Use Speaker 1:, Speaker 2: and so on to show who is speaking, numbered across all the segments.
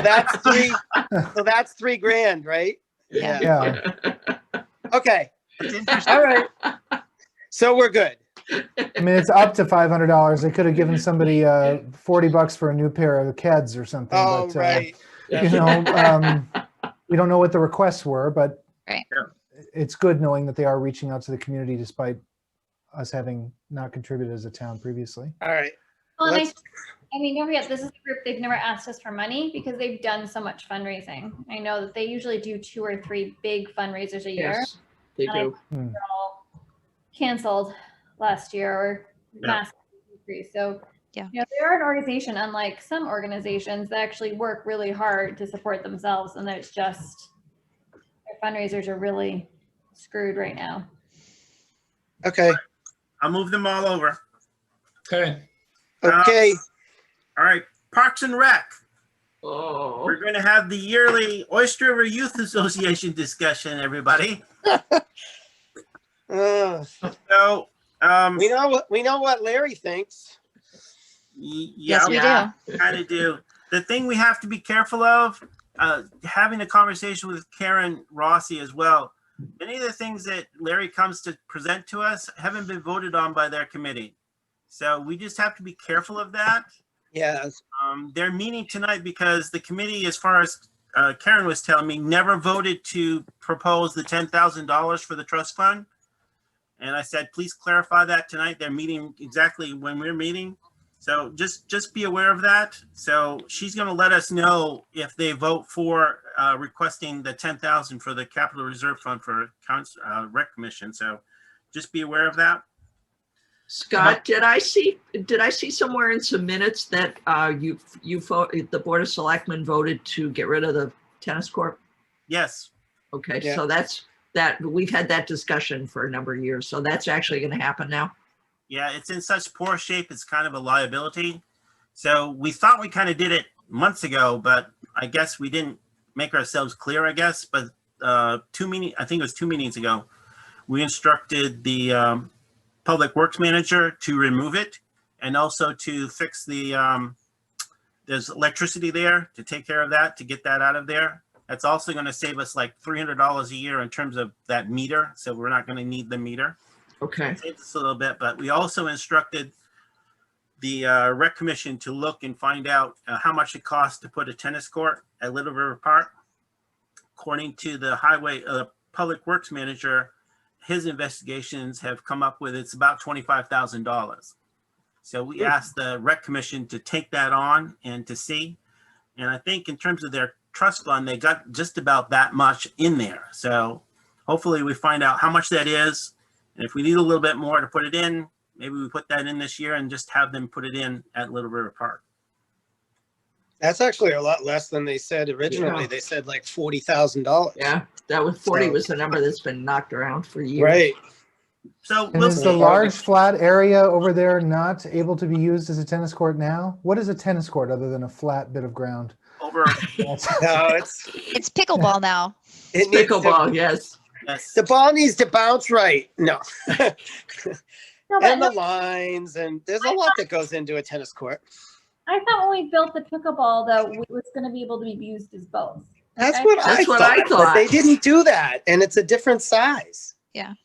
Speaker 1: that's three, so that's three grand, right? Yeah.
Speaker 2: Yeah.
Speaker 1: Okay,
Speaker 3: It's interesting.
Speaker 1: all right. So we're good.
Speaker 2: I mean, it's up to five hundred dollars. They could have given somebody uh forty bucks for a new pair of Keds or something.
Speaker 1: All
Speaker 3: Oh,
Speaker 2: but, uh,
Speaker 1: right.
Speaker 2: You know, um, we don't know what the requests were, but
Speaker 4: Right.
Speaker 2: it's good knowing that they are reaching out to the community despite us having not contributed as a town previously.
Speaker 1: All right.
Speaker 4: Well, and I,
Speaker 1: Let's-
Speaker 4: I mean, don't forget, this is a group, they've never asked us for money because they've done so much fundraising. I know that they usually do two or three big fundraisers a year.
Speaker 3: Yes, they do.
Speaker 4: They're all Canceled last year or massive decrease. So,
Speaker 5: Yeah.
Speaker 4: you know, they're an organization, unlike some organizations that actually work really hard to support themselves and that it's just their fundraisers are really screwed right now.
Speaker 1: Okay,
Speaker 6: I'll move them all over.
Speaker 7: Okay,
Speaker 1: okay.
Speaker 6: All right, Parks and Rec.
Speaker 3: Oh,
Speaker 6: We're going to have the yearly Oyster River Youth Association discussion, everybody.
Speaker 1: Uh,
Speaker 6: So, um,
Speaker 1: We know, what- we know what Larry thinks.
Speaker 6: y- yeah,
Speaker 5: Yes, we
Speaker 3: Yeah.
Speaker 5: do.
Speaker 6: kind of do. The thing we have to be careful of, uh, having a conversation with Karen Rossi as well. Many of the things that Larry comes to present to us haven't been voted on by their committee. So we just have to be careful of that.
Speaker 1: Yes,
Speaker 6: Um, they're meeting tonight because the committee, as far as uh, Karen was telling me, never voted to propose the ten thousand dollars for the trust fund. And I said, please clarify that tonight. They're meeting exactly when we're meeting. So just, just be aware of that. So she's gonna let us know if they vote for uh, requesting the ten thousand for the capital reserve fund for Couns- uh, rec commission. So just be aware of that.
Speaker 3: Scott, did I see, did I see somewhere in some minutes that uh, you, you, fo- the Board of Selectmen voted to get rid of the tennis court?
Speaker 6: Yes,
Speaker 3: Okay,
Speaker 1: Yeah.
Speaker 3: so that's, that, we've had that discussion for a number of years, so that's actually going to happen now?
Speaker 6: Yeah, it's in such poor shape, it's kind of a liability. So we thought we kind of did it months ago, but I guess we didn't make ourselves clear, I guess, but uh, two meeting, I think it was two meetings ago, we instructed the um, Public Works Manager to remove it and also to fix the, um, there's electricity there to take care of that, to get that out of there. That's also going to save us like $300 a year in terms of that meter, so we're not going to need the meter
Speaker 3: Okay,
Speaker 6: saved us a little bit, but we also instructed the uh, rec commission to look and find out uh, how much it costs to put a tennis court at Little River Park. According to the highway, uh, public works manager, his investigations have come up with it's about twenty-five thousand dollars. So we asked the rec commission to take that on and to see. And I think in terms of their trust fund, they got just about that much in there. So hopefully we find out how much that is and if we need a little bit more to put it in, maybe we put that in this year and just have them put it in at Little River Park.
Speaker 1: that's actually a lot less than they said originally.
Speaker 3: Yeah.
Speaker 1: They said like forty thousand dollars.
Speaker 3: yeah, that was 40
Speaker 1: So-
Speaker 3: was the number that's been knocked around for years.
Speaker 1: Right,
Speaker 6: So
Speaker 2: And
Speaker 6: we'll
Speaker 2: is the
Speaker 6: see.
Speaker 2: large flat area over there not able to be used as a tennis court now? What is a tennis court other than a flat bit of ground?
Speaker 6: over.
Speaker 1: no, it's,
Speaker 5: It's pickleball now.
Speaker 1: it needs to,
Speaker 3: Pickleball, yes.
Speaker 6: yes.
Speaker 1: the ball needs to bounce right, no.
Speaker 4: No, but
Speaker 1: And the
Speaker 4: no,
Speaker 1: lines, and there's a lot that goes into a tennis court.
Speaker 4: I thought when we built the pickleball, though, it was gonna be able to be used as both.
Speaker 1: That's
Speaker 4: Okay.
Speaker 1: what I
Speaker 3: That's what I
Speaker 1: thought, but
Speaker 3: thought.
Speaker 1: they didn't do that, and it's a different size.
Speaker 6: Well,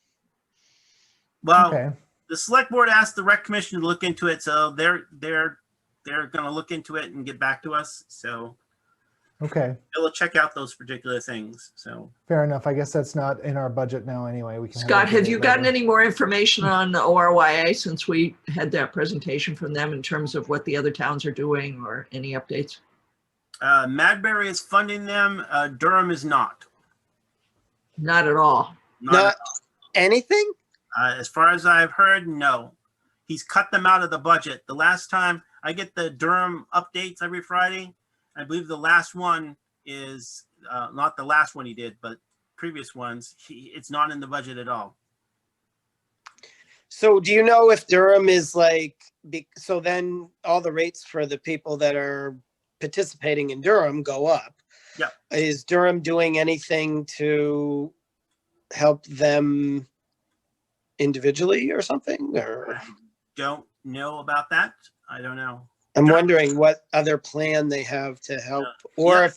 Speaker 3: Um,
Speaker 2: Okay,
Speaker 6: the select board asked the rec commission to look into it, so they're, they're, they're gonna look into it and get back to us. So
Speaker 2: okay,
Speaker 6: they'll check out those particular things, so.
Speaker 2: fair enough. I guess that's not in our budget now anyway. We can. have that
Speaker 3: Scott, have you
Speaker 2: debate
Speaker 3: gotten
Speaker 2: later.
Speaker 3: any more information on the ORYA since we had that presentation from them in terms of what the other towns are doing or any updates?
Speaker 6: Uh, Madbury is funding them, uh, Durham is not.
Speaker 3: Not at all.
Speaker 1: Not anything?
Speaker 6: Uh, as far as I've heard, no. He's cut them out of the budget. The last time I get the Durham updates every Friday, I believe the last one is uh, not the last one he did, but previous ones. He, it's not in the budget at all.
Speaker 1: So do you know if Durham is like, be- so then all the rates for the people that are participating in Durham go up?
Speaker 6: Yeah.
Speaker 1: Is Durham doing anything to help them individually or something, or?
Speaker 6: I don't know about that. I don't know.
Speaker 1: I'm wondering what other plan they have to help, or
Speaker 6: Yeah.
Speaker 1: if